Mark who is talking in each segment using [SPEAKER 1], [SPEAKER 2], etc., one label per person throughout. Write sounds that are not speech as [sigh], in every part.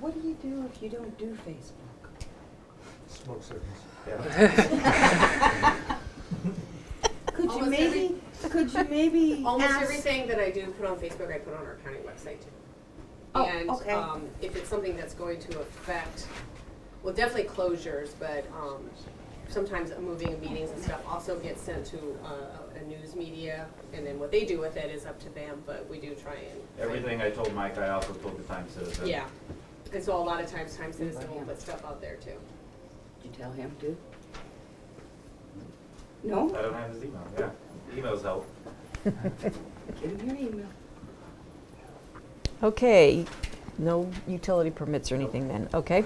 [SPEAKER 1] What do you do if you don't do
[SPEAKER 2] [laughs]
[SPEAKER 1] Facebook?
[SPEAKER 3] Smoke signals.
[SPEAKER 1] Could you
[SPEAKER 2] Almost
[SPEAKER 1] maybe, could you maybe
[SPEAKER 2] [laughs] Almost
[SPEAKER 1] ask-
[SPEAKER 2] everything that I do put on Facebook, I put on our county website too.
[SPEAKER 1] Oh,
[SPEAKER 2] and
[SPEAKER 1] okay.
[SPEAKER 2] um, if it's something that's going to affect, well, definitely closures, but um, sometimes moving of meetings and stuff also gets sent to uh, a news media, and then what they do with it is up to them. But we do try and
[SPEAKER 4] Everything I told Mike, I also told the Times Citizen.
[SPEAKER 2] Yeah, and so a lot of times, Times Citizen will put stuff out there too.
[SPEAKER 1] Did you tell him to? No?
[SPEAKER 4] I don't have his email, yeah. Emails help.
[SPEAKER 1] Give him your email.
[SPEAKER 5] Okay, no utility permits or anything then, okay.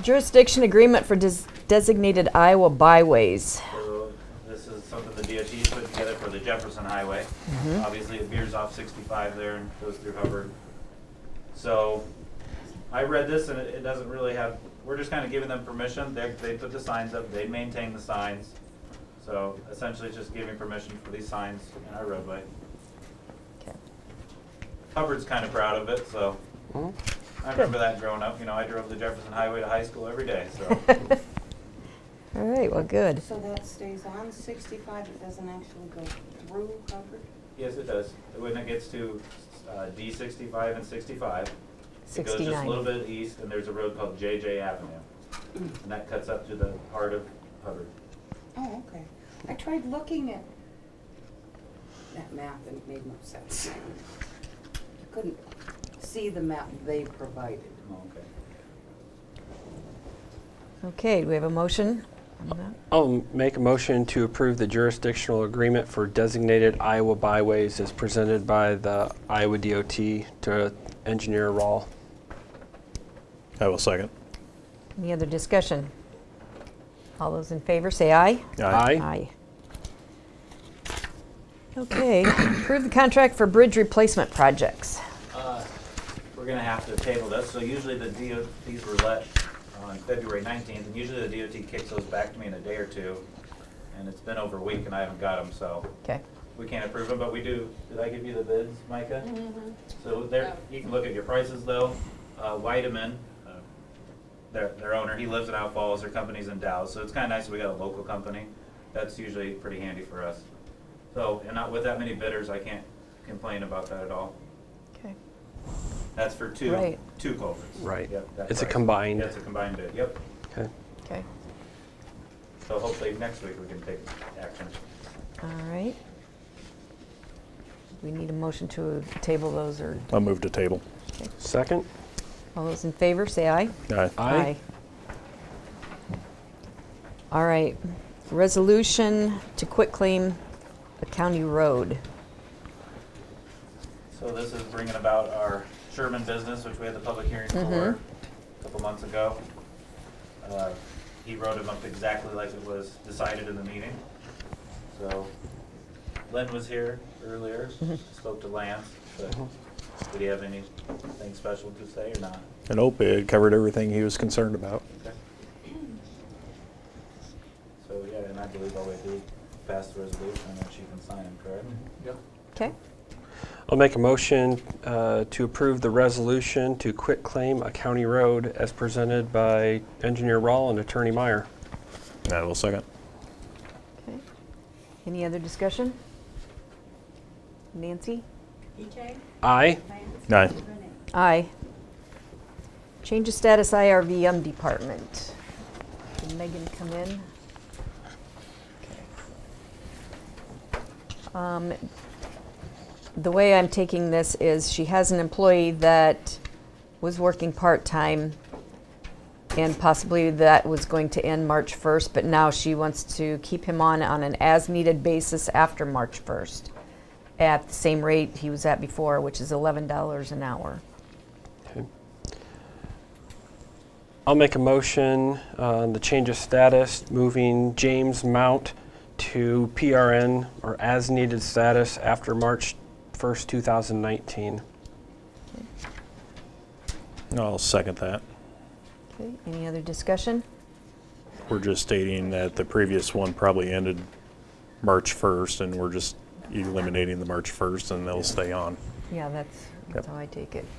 [SPEAKER 5] Jurisdiction agreement for des- designated Iowa byways. [laughs]
[SPEAKER 4] So this is something the DOT's put together for the Jefferson Highway. Obviously, it veers off 65 there and goes through Hubbard. So I read this and it it doesn't really have, we're just kind of giving them permission. They, they put the signs up, they maintain the signs. So essentially, it's just giving permission for these signs in our roadway.
[SPEAKER 5] Okay.
[SPEAKER 4] Hubbard's kind of proud of it, so
[SPEAKER 5] Mhm.
[SPEAKER 4] I remember that growing up. You know, I drove the Jefferson Highway to high school every day,
[SPEAKER 5] [laughs]
[SPEAKER 4] so.
[SPEAKER 5] All right, well, good.
[SPEAKER 1] So that stays on sixty-five, it doesn't actually go through Hubbard?
[SPEAKER 4] Yes, it does. When it gets to uh, D sixty-five and sixty-five, it goes just a
[SPEAKER 5] 69.
[SPEAKER 4] little bit east, and there's a road called JJ Avenue. And that cuts up to the heart of Hubbard.
[SPEAKER 1] Oh, okay. I tried looking at that map and it made no sense. I couldn't see the map they provided.
[SPEAKER 4] Oh, okay.
[SPEAKER 5] Okay, do we have a motion? on that?
[SPEAKER 6] I'll make a motion to approve the jurisdictional agreement for designated Iowa byways as presented by the Iowa DOT to engineer Rawl.
[SPEAKER 7] I will second.
[SPEAKER 5] Any other discussion? All those in favor, say aye.
[SPEAKER 6] Aye.
[SPEAKER 5] Aye. Okay, [coughs] approve the contract for bridge replacement projects.
[SPEAKER 4] Uh, We're gonna have to table this, so usually the DOT, these were let on February nineteenth, and usually the DOT kicks those back to me in a day or two. And it's been over a week and I haven't got them, so
[SPEAKER 5] Okay,
[SPEAKER 4] we can't approve them, but we do, did I give you the bids, Micah? So there, you can look at your prices though. Uh, Weideman, uh, their, their owner, he lives in Out Falls, their company's in Dow, so it's kinda nice that we got a local company. That's usually pretty handy for us. So, and not with that many bidders, I can't complain about that at all.
[SPEAKER 5] okay.
[SPEAKER 4] That's for two,
[SPEAKER 5] Right.
[SPEAKER 4] two culverts.
[SPEAKER 6] Right.
[SPEAKER 4] Yep, that
[SPEAKER 6] It's a
[SPEAKER 4] price.
[SPEAKER 6] combined.
[SPEAKER 4] Yeah, It's a combined bid, yep.
[SPEAKER 6] Okay.
[SPEAKER 5] Okay,
[SPEAKER 4] So hopefully next week we can take action.
[SPEAKER 5] all right. We need a motion to table those or,
[SPEAKER 7] I'll move to table.
[SPEAKER 6] Second?
[SPEAKER 5] all those in favor, say aye.
[SPEAKER 7] Aye.
[SPEAKER 5] All right, resolution to quitclaim a county road.
[SPEAKER 4] So this is bringing about our Sherman business, which we had the public hearing for a couple months ago. Uh, He wrote him up exactly like it was decided in the meeting. So Len was here earlier, spoke to Lance, but did he have anything special to say or not?
[SPEAKER 7] And OPID covered everything he was concerned about.
[SPEAKER 4] Okay. So, yeah, and I believe all we have to do is pass the resolution and then she can sign it, correct?
[SPEAKER 5] Okay,
[SPEAKER 6] I'll make a motion uh, to approve the resolution to quit claim a county road as presented by engineer Rawl and attorney Meyer.
[SPEAKER 7] I will second.
[SPEAKER 5] okay. Any other discussion? Nancy?
[SPEAKER 2] EJ,
[SPEAKER 6] Aye.
[SPEAKER 7] Aye.
[SPEAKER 5] Aye. Change of status IRVM um, department. Did Megan come in? Okay. Um, The way I'm taking this is she has an employee that was working part-time and possibly that was going to end March 1st, but now she wants to keep him on on an as-needed basis after March 1st at the same rate he was at before, which is $11 an hour.
[SPEAKER 6] I'll make a motion on the change of status, moving James Mount to PRN or as-needed status after March 1st, 2019.
[SPEAKER 7] I'll second that.
[SPEAKER 5] Okay, any other discussion?
[SPEAKER 7] We're just stating that the previous one probably ended March 1st, and we're just eliminating the March 1st, and they'll stay on.
[SPEAKER 5] Yeah, that's, that's
[SPEAKER 7] Yep.
[SPEAKER 5] how I take it.